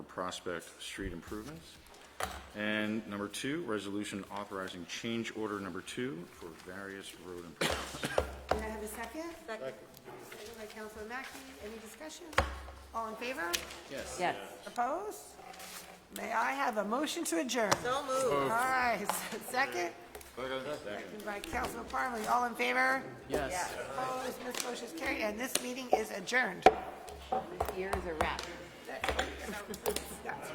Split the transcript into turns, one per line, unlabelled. Prospect Street improvements. And number two, resolution authorizing change order number two for various road improvements.
May I have a second?
Second.
Second by Councilor Mackey. Any discussion? All in favor?
Yes.
Opposed? May I have a motion to adjourn?
So
All
moved.
right, second, second by Councilor Parley. All in favor?
Yes.
Opposed? This motion is carried, and this meeting is adjourned.
Here's a wrap.
That's-